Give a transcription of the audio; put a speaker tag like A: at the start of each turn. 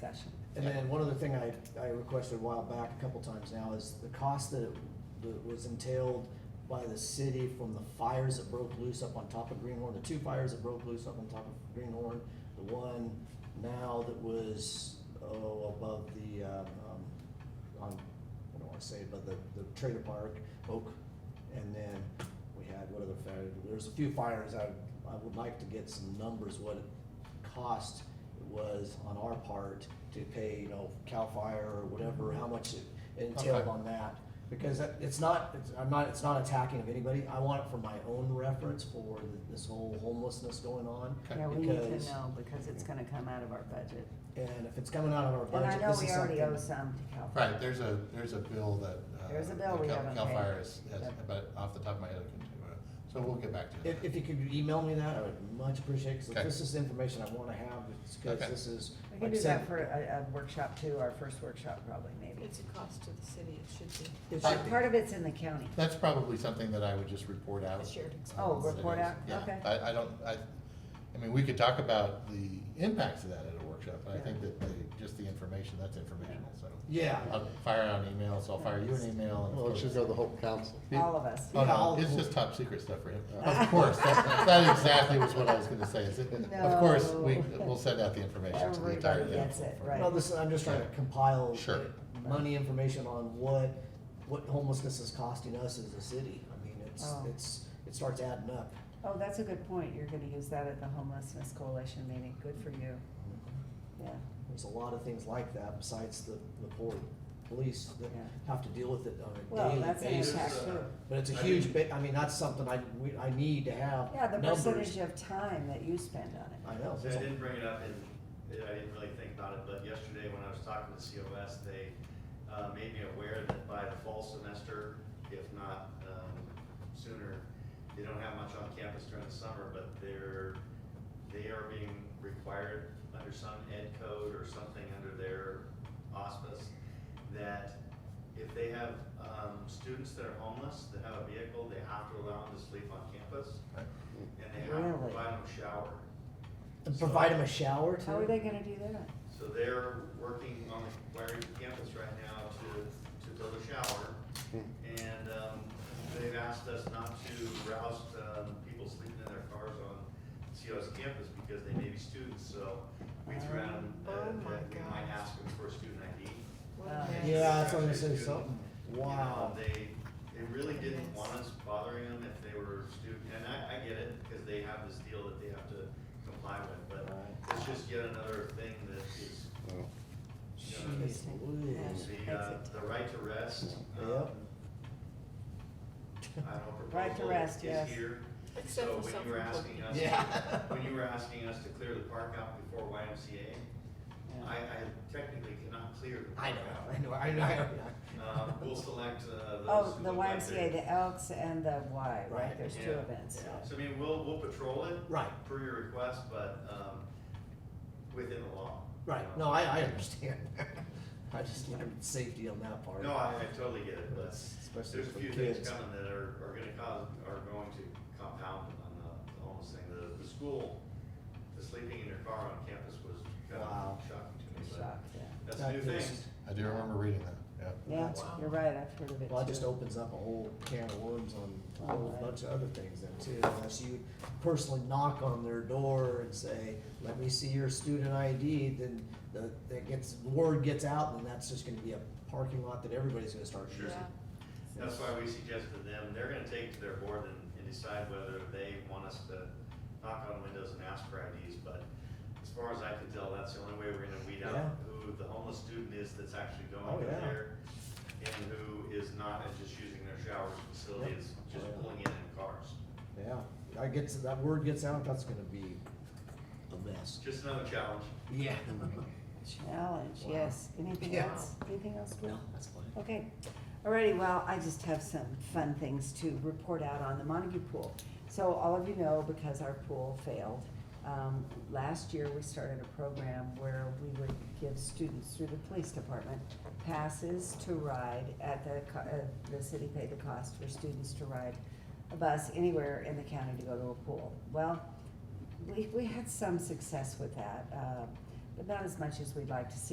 A: discussion.
B: And then one other thing I, I requested a while back, a couple times now, is the cost that, that was entailed by the city from the fires that broke loose up on top of Greenhorn, the two fires that broke loose up on top of Greenhorn, the one now that was, oh, above the, um, um, on, I don't wanna say, it, but the, the trailer park, Oak, and then we had, what other fire, there's a few fires, I, I would like to get some numbers, what it cost was on our part to pay, you know, CAL FIRE or whatever, how much it entailed
C: Okay.
B: on that. Because that- it's not, it's, I'm not, it's not attacking of anybody, I want it for my own reference for th- this whole homelessness going on.
C: Okay.
A: Yeah, we need to
B: Because-
A: know because it's gonna come out of our budget.
B: And if it's coming out of our
A: And I
B: budget,
A: know
B: this
A: we
B: is
A: already owe
B: something.
A: some to Cal Fire.
C: Right, there's a, there's a bill that. uh,
A: There's a bill we
C: Cal-
A: haven't
C: Cal
A: paid.
C: Fire has, has,
A: Yep.
C: but off the top of my head, I couldn't, do it. so we'll get back to
B: If,
C: that.
B: if you could email me that, I would much appreciate, cause
C: Okay.
B: this is information I wanna have, it's cause
C: Okay.
B: this is.
A: We
B: like
A: can do
B: I
A: that
B: said,
A: for a, a workshop too, our first workshop probably maybe.
D: It's a cost to the city, it should be.
B: it
A: But
B: should be.
A: Part of it's in the county.
C: That's probably something that I would just report out.
D: A shared
C: Um,
D: expense.
A: Oh, report
C: it is.
A: out?
C: Yeah.
A: Okay.
C: I, I don't, I, I mean, we could talk about the impacts of that at a workshop, but I
A: Yeah.
C: think that the, just the information, that's informational, so.
B: Yeah,
C: I'll fire out an email, so I'll fire you an email. and of
E: Well, it should
C: course-
E: go to the whole council.
A: All of us.
C: Oh,
B: Yeah, all
C: no,
B: the
C: it's
B: whole-
C: just top secret stuff for him. Of course, that, that exactly was what I was gonna say, is it, of course, we,
A: No.
C: we'll send out the information to the entire.
A: Everybody gets it,
C: council for-
A: right.
B: no, this, I'm just trying to compile.
C: Sure.
B: Money information on what, what homelessness is costing us as a city, I mean, it's,
A: Oh.
B: it's, it starts adding up.
A: Oh, that's a good point. You're gonna use that at the homelessness coalition meeting. Good for you. Yeah.
B: There's a lot of things like that besides the, the poor police that
A: Yeah.
B: have to deal with it on a
A: Well,
B: daily
A: that's an
B: basis.
A: impact too.
B: But it's a
F: I
B: huge
F: mean-
B: bit, I mean, that's something I, we, I need to have
A: Yeah, the
B: numbers.
A: percentage of time that you spend on it.
B: I know.
F: See, I didn't bring it up and uh, I didn't really think about it, but yesterday when I was talking to COS, they uh, made me aware that by the fall semester, if not um, sooner, they don't have much on campus during the summer, but they're, they are being required under some ed code or something under their auspice that if they have um, students that are homeless, that have a vehicle, they have to allow them to sleep on campus
C: Right.
F: and they have to
A: Really?
F: provide them a shower.
B: And provide them a shower too.
A: How are they gonna do that?
F: So they're working on wiring the campus right now to, to build a shower. And, um, they've asked us not to rouse, um, people sleeping in their cars on COS campus because they may be students, so we threw out, uh,
D: Oh my
F: that we might
D: gosh.
F: ask them for a student ID.
D: What a
A: Uh,
D: mess.
B: Yeah, that's what I'm gonna say,
F: Student,
B: something,
F: you know,
B: wow.
F: They, they really didn't
D: Yes.
F: want us bothering them if they were student, and I, I get it, because they have this deal that they have to comply with, but
B: Right.
F: it's just yet another thing that is
B: Jeez Louise.
F: the, uh, the right to rest. um,
B: Yep.
F: I don't know,
A: Right to
F: proposal
A: rest, yes.
F: is here.
D: Except
F: So
D: for
F: when you were asking
D: self-employed.
F: us,
B: Yeah.
F: when you were asking us to clear the park out before YMCA, I, I technically cannot clear the
B: I
F: park
B: know,
F: out.
B: I know, I know, I know.
F: Um, we'll select, uh, those
A: Oh,
F: who
A: the
F: look like they-
A: YMCA, the Elks and the Y, right?
B: Right.
A: There's two
F: Yeah.
A: events.
F: Yeah. So I mean, we'll, we'll patrol it.
B: Right.
F: Per your request, but, um, within the law. Um, you
B: Right,
F: know.
B: no, I, I understand. I just learned safety on that part.
F: No, I, I totally get it, but
B: Especially
F: there's a
B: for
F: few things
B: kids.
F: coming that are, are gonna cause, are going to compound on the, the homeless thing. The, the school, the sleeping in your car on campus was kind
B: Wow.
F: of shocking to me, but
A: Shocked, yeah.
F: that's a new
B: That
F: thing.
B: is-
C: I do remember reading that, yeah.
A: Yeah,
F: Wow.
A: you're right, I've heard of it
B: Oh, Well, it
A: too.
B: just opens up a whole can of worms on a whole
A: Alright.
B: bunch of other things then too. Unless you personally knock on their door and say, let me see your student ID, then the, that gets, the word gets out and that's just gonna be a parking lot that everybody's gonna start using.
D: Yeah.
F: That's why we suggested them, they're gonna take to their board and, and decide whether they want us to knock on windows and ask for IDs, but as far as I can tell, that's the only way we're gonna weed
B: Yeah.
F: out who the homeless student is that's actually
B: Oh,
F: going in
B: yeah.
F: there and who is not, and just using their showers facility, is just
B: Oh, Yeah.
F: pulling in in cars.
B: Yeah, that gets, that word gets out, that's gonna be a mess.
F: It's just another challenge.
B: Yeah.
A: Challenge,
B: Wow.
A: yes. Anything
B: Yeah.
A: else? Anything else, Will?
B: No, that's fine.
A: Okay, alrighty, well, I just have some fun things to report out on the Montague Pool. So all of you know, because our pool failed, um, last year we started a program where we would give students through the police department passes to ride at the, co- uh, the city paid the cost for students to ride a bus anywhere in the county to go to a pool. Well, we, we had some success with that, uh, but not as much as we'd like to see.